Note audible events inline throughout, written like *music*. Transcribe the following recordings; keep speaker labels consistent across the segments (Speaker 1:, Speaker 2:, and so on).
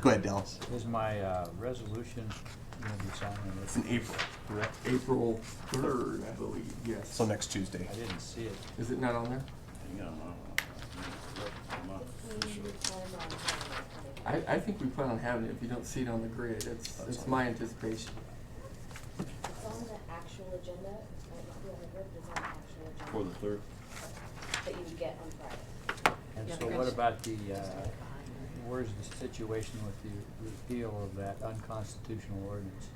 Speaker 1: Go ahead, Dallas.
Speaker 2: Is my uh, resolution going to be signed in
Speaker 1: It's
Speaker 2: this?
Speaker 1: in April,
Speaker 2: Correct?
Speaker 3: April third, I believe, yes.
Speaker 1: so next Tuesday.
Speaker 2: I didn't see it.
Speaker 3: Is it not on there?
Speaker 4: Hang on, I'm, not- I'm not official.
Speaker 5: Mm.
Speaker 3: I, I think we plan on having it, if you don't see it on the grid, it's, it's my anticipation.
Speaker 5: It's on the actual agenda, it might not be on the grid, but it's on the actual agenda.
Speaker 4: For the third,
Speaker 5: That you would get on Friday.
Speaker 2: And
Speaker 6: Yeah,
Speaker 2: so
Speaker 6: the
Speaker 2: what
Speaker 6: rest-
Speaker 2: about the, uh, where's the situation with the repeal of that unconstitutional ordinance?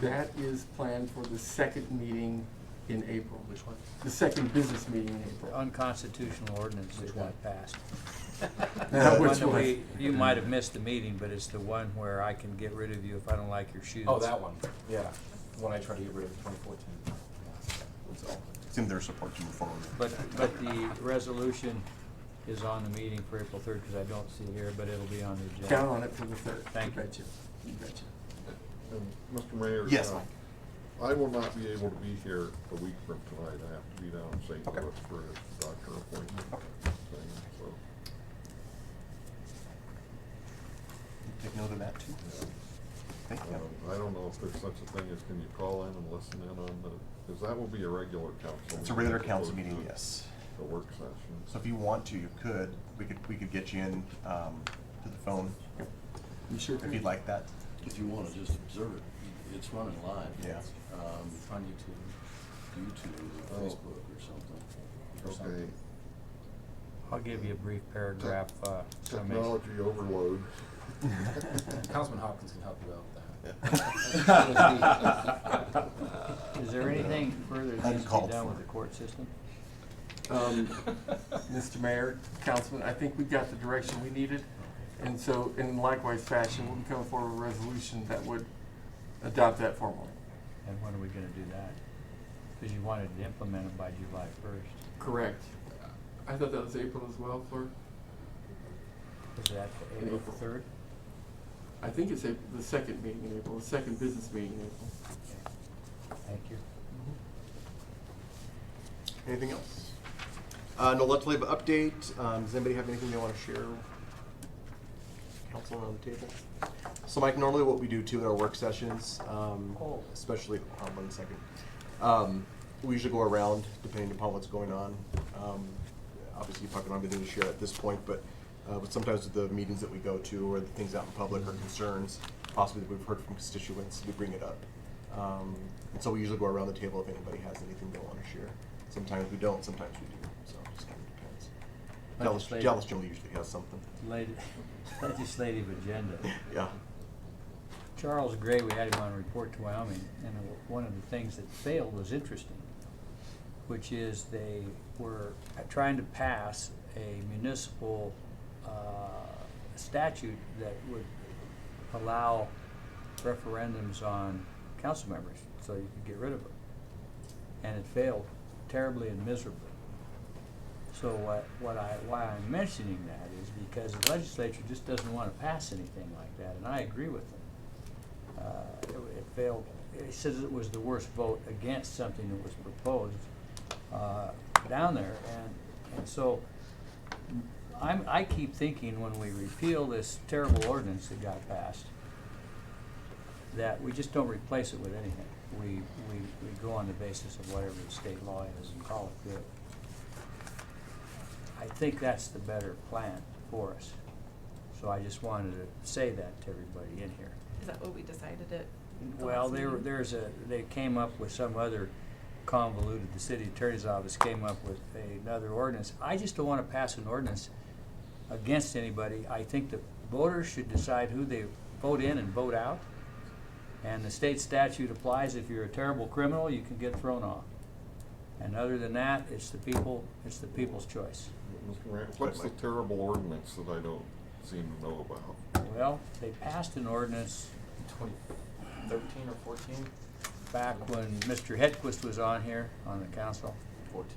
Speaker 3: That is planned for the second meeting in April,
Speaker 2: Which one?
Speaker 3: the second business meeting in
Speaker 2: The
Speaker 3: April.
Speaker 2: unconstitutional ordinance that
Speaker 4: Which
Speaker 2: got
Speaker 4: one?
Speaker 2: passed.
Speaker 3: Now,
Speaker 2: The
Speaker 3: which
Speaker 2: one that
Speaker 3: one?
Speaker 2: we- You might have missed the meeting, but it's the one where I can get rid of you if I don't like your shoes.
Speaker 7: Oh, that one, yeah, when I tried to get rid of twenty fourteen. It's all.
Speaker 1: It's in their support to move forward.
Speaker 2: But, but the resolution is on the meeting for April third, because I don't see it here, but it'll be on the
Speaker 3: Count
Speaker 2: agenda.
Speaker 3: on it for the third.
Speaker 2: Thank you.
Speaker 3: betcha. You betcha.
Speaker 8: Um, Mr. Mayor?
Speaker 1: Yes,
Speaker 8: uh,
Speaker 1: Mike.
Speaker 8: I will not be able to be here a week from tonight. I have to be down in St.
Speaker 1: Okay.
Speaker 8: Louis for a doctor appointment thing, so.
Speaker 1: Take note of that too. Thank you.
Speaker 8: um, I don't know if there's such a thing as can you call in and listen in on the, because that will be a regular council.
Speaker 1: It's a regular
Speaker 8: meeting as
Speaker 1: council
Speaker 8: opposed
Speaker 1: meeting,
Speaker 8: to
Speaker 1: yes.
Speaker 8: A work session.
Speaker 1: So if you want to, you could, we could, we could get you in, um, to the phone
Speaker 3: You sure?
Speaker 1: if you'd like that.
Speaker 4: if you wanna just observe it, it's running live.
Speaker 1: Yeah.
Speaker 4: Um,
Speaker 7: On YouTube.
Speaker 4: YouTube,
Speaker 8: Oh.
Speaker 4: or Facebook or something, or
Speaker 8: Okay,
Speaker 4: something.
Speaker 2: I'll give you a brief paragraph, uh, summation.
Speaker 8: technology overload.
Speaker 7: Councilman Hopkins can help you out with
Speaker 2: Is there anything further that needs to be
Speaker 1: Uncalled
Speaker 2: done
Speaker 1: for.
Speaker 2: with the court system? *laughs*
Speaker 3: Um,
Speaker 7: that.
Speaker 3: Mr. Mayor, Councilman, I think we got the direction we needed. And so, in likewise fashion, we can come forward with a resolution that would adopt that formally.
Speaker 2: And when are we gonna do that? Because you wanted to implement it by July first.
Speaker 3: Correct. I thought that was April as well, Fleur.
Speaker 2: Is that the
Speaker 3: In
Speaker 2: April
Speaker 3: April.
Speaker 2: third?
Speaker 3: I think it's April, the second meeting in April, the second business meeting in April.
Speaker 2: Thank you.
Speaker 1: *laughs* Anything else? Uh, no legislative update. Um, does anybody have anything they want to share? Council around the table. So Mike, normally what we do too at our work sessions, um,
Speaker 2: Oh.
Speaker 1: especially, on one second. Um, we usually go around depending upon what's going on. Um, obviously you probably don't have anything to share at this point, but, uh, but sometimes with the meetings that we go to or the things out in public or concerns, possibly that we've heard from constituents, we bring it up. Um, and so we usually go around the table if anybody has anything they want to share. Sometimes we don't, sometimes we do, so it just kind of depends. Dallas,
Speaker 2: Legislative.
Speaker 1: Dallas generally usually has something, *laughs*
Speaker 2: Lati- *laughs* Legislative agenda.
Speaker 1: yeah.
Speaker 2: Charles Gray, we had him on Report to Wyoming, and one of the things that failed was interesting, which is they were trying to pass a municipal uh, statute that would allow referendums on council members, so you could get rid of them. And it failed terribly and miserably. So what, what I, why I'm mentioning that is because the legislature just doesn't want to pass anything like that, and I agree with them uh, it it failed. It says it was the worst vote against something that was proposed uh, down there, and, and so I'm, I keep thinking when we repeal this terrible ordinance that got passed, that we just don't replace it with anything. We, we, we go on the basis of whatever the state law is and call it good. I think that's the better plan for us. So I just wanted to say that to everybody in here.
Speaker 6: Is that what we decided it?
Speaker 2: Well, there, there's a, they came up with some other convoluted, the city attorney's office came up with another ordinance. I just don't wanna pass an ordinance against anybody. I think the voters should decide who they vote in and vote out. And the state statute applies, if you're a terrible criminal, you can get thrown off. And other than that, it's the people, it's the people's choice.
Speaker 8: Mr. Mayor, what's the terrible ordinance that I don't seem to know about?
Speaker 2: Well, they passed an ordinance
Speaker 7: Twenty thirteen or fourteen?
Speaker 2: back when Mr. Hedquist was on here, on the council.
Speaker 7: Fourteen.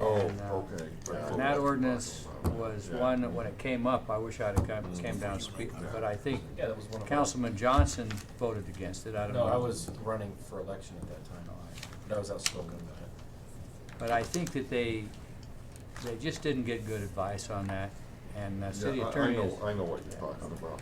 Speaker 8: Oh,
Speaker 2: And, uh,
Speaker 8: okay. That's
Speaker 2: And
Speaker 8: what
Speaker 2: that
Speaker 8: we're
Speaker 2: ordinance
Speaker 8: talking about.
Speaker 2: was
Speaker 8: Yeah.
Speaker 2: one that when it came up, I wish I'd have come, came down and speak, but I think
Speaker 7: Yeah, that was one of.
Speaker 2: Councilman Johnson voted against it, I don't know.
Speaker 7: No, I was running for election at that time, but I was outspoken about it.
Speaker 2: But I think that they, they just didn't get good advice on that, and the
Speaker 8: Yeah,
Speaker 2: city
Speaker 8: I-
Speaker 2: attorney is.
Speaker 8: I know, I know what you're talking about.